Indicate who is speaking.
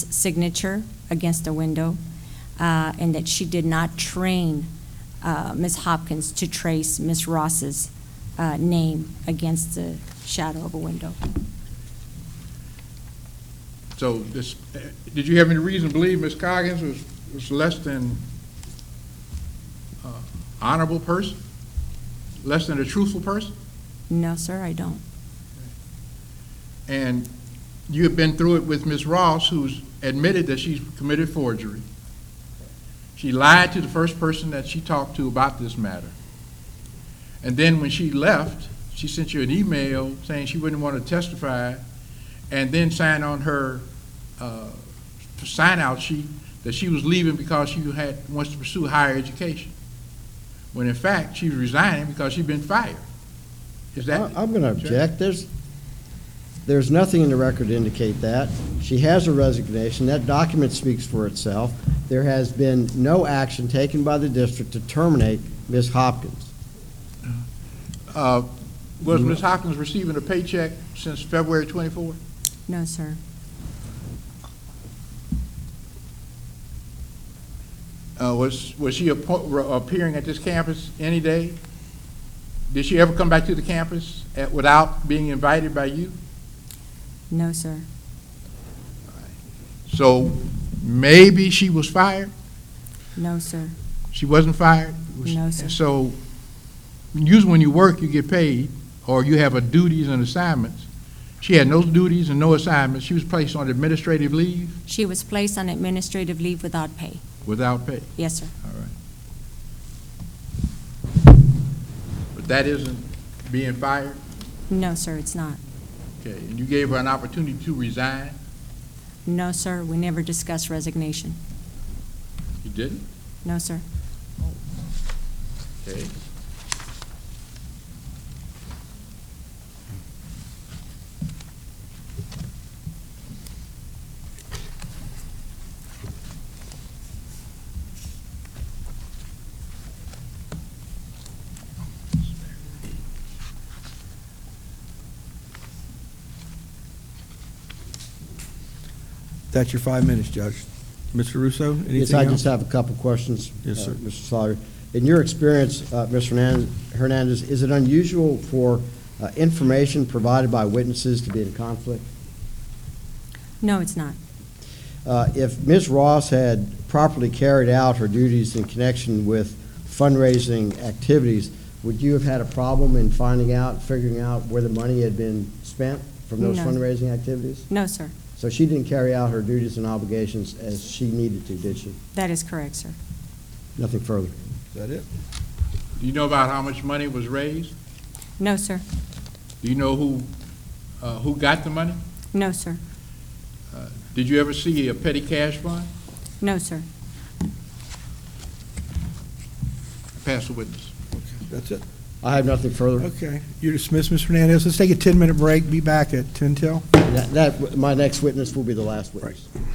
Speaker 1: signature against a window, uh, and that she did not train uh, Ms. Hopkins to trace Ms. Ross's uh, name against the shadow of a window.
Speaker 2: So this, uh, did you have any reason to believe Ms. Coggins was, was less than uh, honorable person? Less than a truthful person?
Speaker 1: No, sir, I don't.
Speaker 2: And you have been through it with Ms. Ross, who's admitted that she's committed forgery. She lied to the first person that she talked to about this matter. And then when she left, she sent you an email saying she wouldn't want to testify, and then signed on her uh, sign-out sheet that she was leaving because she had, wants to pursue higher education. When in fact, she's resigning because she's been fired. Is that?
Speaker 3: I- I'm going to object. There's, there's nothing in the record to indicate that. She has a resignation. That document speaks for itself. There has been no action taken by the district to terminate Ms. Hopkins.
Speaker 2: Uh, Was Ms. Hopkins receiving a paycheck since February 24?
Speaker 1: No, sir.
Speaker 2: Uh, Was, was she appo- re- appearing at this campus any day? Did she ever come back to the campus at- without being invited by you?
Speaker 1: No, sir.
Speaker 2: So maybe she was fired?
Speaker 1: No, sir.
Speaker 2: She wasn't fired? Was-
Speaker 1: No, sir.
Speaker 2: So usually when you work, you get paid, or you have a duties and assignments. She had no duties and no assignments. She was placed on administrative leave
Speaker 1: She was placed on administrative leave without pay.
Speaker 2: without pay.
Speaker 1: Yes, sir.
Speaker 2: All right. But that isn't being fired,
Speaker 1: No, sir, it's not.
Speaker 2: okay, and you gave her an opportunity to resign?
Speaker 1: No, sir, we never discussed resignation.
Speaker 2: You didn't?
Speaker 1: No, sir.
Speaker 2: Okay.
Speaker 4: That's your five minutes, Judge. Mr. Russo, anything else?
Speaker 3: Yes, I just have a couple questions.
Speaker 4: Yes,
Speaker 3: uh,
Speaker 4: sir.
Speaker 3: Mr. Sawyer. In your experience, uh, Ms. Hernan- Hernandez, is it unusual for uh, information provided by witnesses to be in conflict?
Speaker 1: No, it's not.
Speaker 3: Uh, If Ms. Ross had properly carried out her duties in connection with fundraising activities, would you have had a problem in finding out, figuring out where the money had been spent from those
Speaker 1: No.
Speaker 3: fundraising activities?
Speaker 1: No, sir.
Speaker 3: So she didn't carry out her duties and obligations as she needed to, did she?
Speaker 1: That is correct, sir.
Speaker 3: Nothing further.
Speaker 4: Is that it?
Speaker 2: Do you know about how much money was raised?
Speaker 1: No, sir.
Speaker 2: Do you know who, uh, who got the money?
Speaker 1: No, sir.
Speaker 2: Did you ever see a petty cash fund?
Speaker 1: No, sir.
Speaker 2: Pass the witness.
Speaker 4: Okay, That's it.
Speaker 3: I have nothing further.
Speaker 4: Okay. You're dismissed, Ms. Hernandez. Let's take a 10-minute break. Be back at 10 till.
Speaker 3: That- That, my next witness will be the last witness.